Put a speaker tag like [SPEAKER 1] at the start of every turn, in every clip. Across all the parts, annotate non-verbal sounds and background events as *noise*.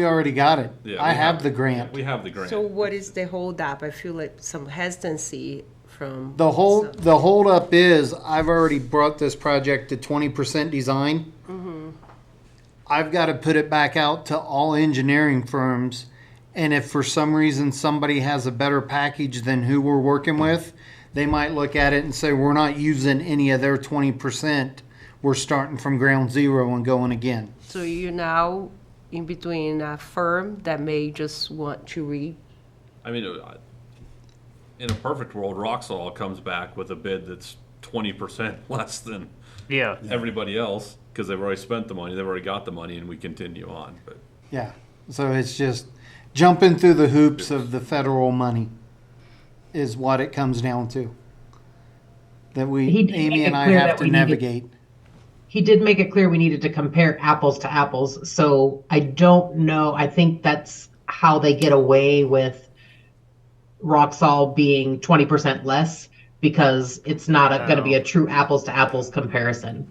[SPEAKER 1] We already got it.
[SPEAKER 2] Yeah,
[SPEAKER 1] I
[SPEAKER 2] we
[SPEAKER 1] have the grant.
[SPEAKER 2] We have the grant.
[SPEAKER 3] So what is the holdup? I feel like some hesitancy from.
[SPEAKER 1] The whole,
[SPEAKER 3] some-
[SPEAKER 1] the holdup is, I've already brought this project to twenty percent design. I've gotta put it back out to all engineering firms, and if for some reason somebody has a better package than who we're working with, they might look at it and say, we're not using any of their twenty percent. We're starting from ground zero and going again.
[SPEAKER 3] So you're now in between a firm that may just want to re,
[SPEAKER 2] I mean, uh, in a perfect world, Roxol comes back with a bid that's twenty percent *laughs* less than
[SPEAKER 4] Yeah.
[SPEAKER 2] everybody else because they've already spent the money, they've already got the money, and we continue on. But
[SPEAKER 1] Yeah, so it's just jumping through the hoops of the federal money is what it comes down to. That
[SPEAKER 5] He
[SPEAKER 1] we,
[SPEAKER 5] did
[SPEAKER 1] Amy
[SPEAKER 5] make
[SPEAKER 1] and
[SPEAKER 5] it
[SPEAKER 1] I
[SPEAKER 5] clear
[SPEAKER 1] have
[SPEAKER 5] that
[SPEAKER 1] to
[SPEAKER 5] we needed-
[SPEAKER 1] navigate.
[SPEAKER 5] he did make it clear we needed to compare apples to apples. So I don't know. I think that's how they get away with Roxol being 20% less because it's not going to be a true apples to apples comparison,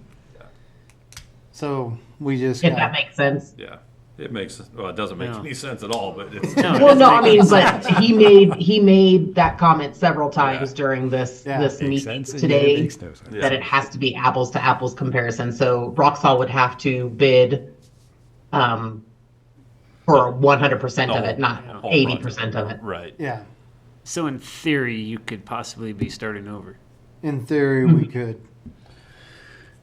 [SPEAKER 1] So we just,
[SPEAKER 5] if that
[SPEAKER 1] got-
[SPEAKER 5] makes sense.
[SPEAKER 2] yeah, it makes well, it doesn't make
[SPEAKER 4] No.
[SPEAKER 2] any sense at all. But it's
[SPEAKER 5] Well, no, I mean, but he made he made that comment several times
[SPEAKER 2] Yeah.
[SPEAKER 5] during this
[SPEAKER 1] Yeah.
[SPEAKER 5] this
[SPEAKER 6] Makes
[SPEAKER 5] meeting
[SPEAKER 6] sense. Yeah,
[SPEAKER 5] today.
[SPEAKER 6] it makes no sense.
[SPEAKER 2] Yeah.
[SPEAKER 5] that it has to be apples to apples comparison. So Roxol would have to bid um, for 100% of
[SPEAKER 2] The
[SPEAKER 5] it, not
[SPEAKER 2] whole- whole
[SPEAKER 5] 80% of it.
[SPEAKER 2] right.
[SPEAKER 1] yeah,
[SPEAKER 4] So in theory, you could possibly be starting over.
[SPEAKER 1] in theory, we
[SPEAKER 5] Mm-hmm.
[SPEAKER 1] could.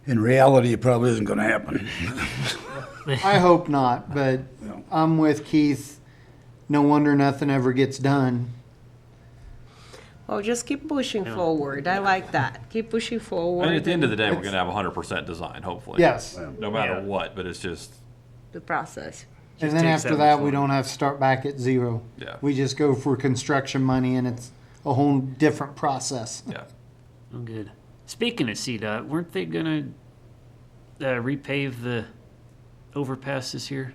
[SPEAKER 6] In reality, it probably isn't going to happen. *laughs*
[SPEAKER 1] I hope not, but
[SPEAKER 6] No.
[SPEAKER 1] I'm with Keith. No wonder nothing ever gets done.
[SPEAKER 3] oh, just keep pushing forward. I like that. Keep pushing forward.
[SPEAKER 2] I mean, at the end of the day, we're
[SPEAKER 1] It's-
[SPEAKER 2] gonna have hundred percent design, hopefully.
[SPEAKER 1] Yes.
[SPEAKER 2] No matter
[SPEAKER 4] Yeah.
[SPEAKER 2] what, but it's just
[SPEAKER 3] The process.
[SPEAKER 1] And then
[SPEAKER 4] takes
[SPEAKER 1] after
[SPEAKER 4] that
[SPEAKER 1] that,
[SPEAKER 4] much
[SPEAKER 1] we don't have to start back at zero.
[SPEAKER 2] Yeah.
[SPEAKER 1] We just go for construction money and it's a whole different process.
[SPEAKER 2] yeah.
[SPEAKER 4] I'm Oh, good. Speaking of CDOT, weren't they gonna uh, repave the overpass this year?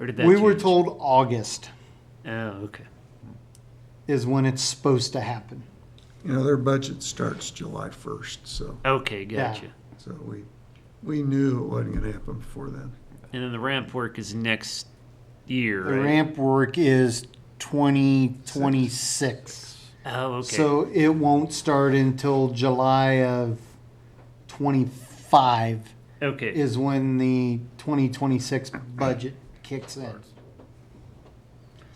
[SPEAKER 4] Or did that?
[SPEAKER 1] We were
[SPEAKER 4] change?
[SPEAKER 1] told August
[SPEAKER 4] Oh, okay.
[SPEAKER 1] is when it's supposed to happen.
[SPEAKER 7] You know, their budget starts July first, so,
[SPEAKER 4] Okay, gotcha.
[SPEAKER 7] so we, we knew it wasn't gonna happen before then.
[SPEAKER 4] And then the ramp work is next year,
[SPEAKER 1] The
[SPEAKER 4] right?
[SPEAKER 1] ramp work is 2026.
[SPEAKER 4] Oh, okay.
[SPEAKER 1] So it won't start until July of 25
[SPEAKER 4] okay.
[SPEAKER 1] is when the 2026 budget kicks in.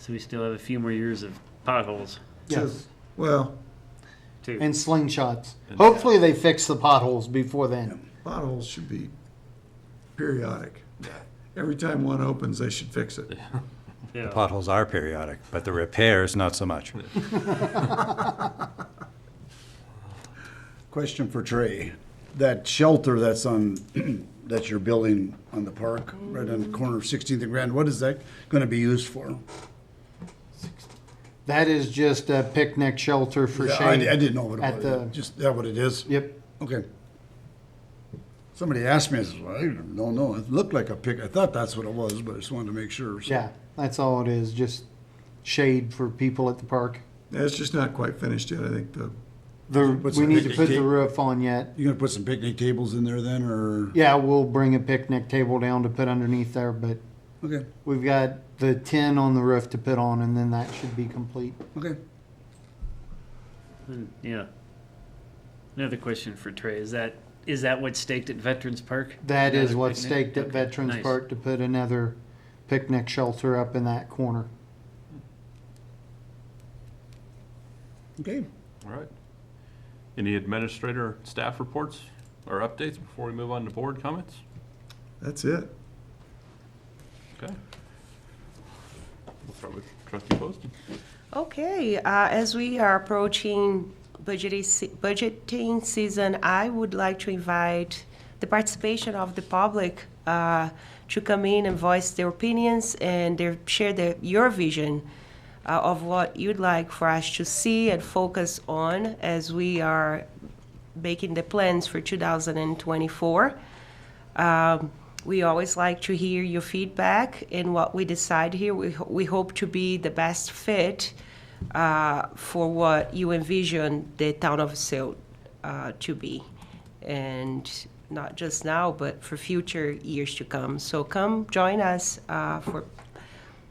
[SPEAKER 4] so we still have a few more years of potholes
[SPEAKER 1] Yes,
[SPEAKER 7] Well,
[SPEAKER 4] too.
[SPEAKER 1] and slingshots. Hopefully they fix the potholes before then.
[SPEAKER 7] potholes should be periodic. Every time one opens, they should fix it.
[SPEAKER 4] yeah.
[SPEAKER 6] Potholes are periodic, but the repairs, not so much. Question for Trey. That shelter that's on, *clears throat* that you're building on the park, right on the corner of 16th and Grand, what is that going to be used for?
[SPEAKER 1] That is just a picnic shelter for
[SPEAKER 6] Yeah, I I
[SPEAKER 1] shade.
[SPEAKER 6] didn't know what
[SPEAKER 1] at
[SPEAKER 6] it
[SPEAKER 1] the-
[SPEAKER 6] was. Just, that what it is?
[SPEAKER 1] Yep,
[SPEAKER 6] Okay. Somebody asked me, I said, well, I don't know. It looked like a pic, I thought that's what it was, but I just wanted to make sure. so.
[SPEAKER 1] yeah, that's all it is, just shade for people at the park.
[SPEAKER 7] Yeah, It's just not quite finished yet, I think the,
[SPEAKER 1] The,
[SPEAKER 6] What's
[SPEAKER 1] we
[SPEAKER 6] the
[SPEAKER 1] need to
[SPEAKER 6] picnic
[SPEAKER 1] put the
[SPEAKER 6] table?
[SPEAKER 1] roof on yet.
[SPEAKER 6] You gonna put some picnic tables in there then, or?
[SPEAKER 1] Yeah, we'll bring a picnic table down to put underneath there, but
[SPEAKER 6] Okay,
[SPEAKER 1] we've got the tin on the roof to put on, and then that should be complete.
[SPEAKER 6] okay.
[SPEAKER 4] And, yeah. Another question for Trey: Is that is that what's staked at Veterans Park?
[SPEAKER 1] That is
[SPEAKER 4] Another
[SPEAKER 1] what's
[SPEAKER 4] picnic?
[SPEAKER 1] staked at
[SPEAKER 4] Okay,
[SPEAKER 1] Veterans
[SPEAKER 4] nice.
[SPEAKER 1] Park to put another picnic shelter up in that corner.
[SPEAKER 6] Okay.
[SPEAKER 2] All right. Any administrator staff reports or updates before we move on to board comments?
[SPEAKER 7] that's it.
[SPEAKER 2] Okay. We'll start with trustee Poston.
[SPEAKER 3] Okay, uh, as we are approaching budgeting, se- budgeting season, I would like to invite the participation of the public uh, to come in and voice their opinions and their, share their, your vision uh, of what you'd like for us to see and focus on as we are making the plans for 2024. Um, we always like to hear your feedback and what we decide here. We, ho- we hope to be the best fit uh, for what you envision the town of Silt uh, to be. And not just now, but for future years to come. So come join us uh, for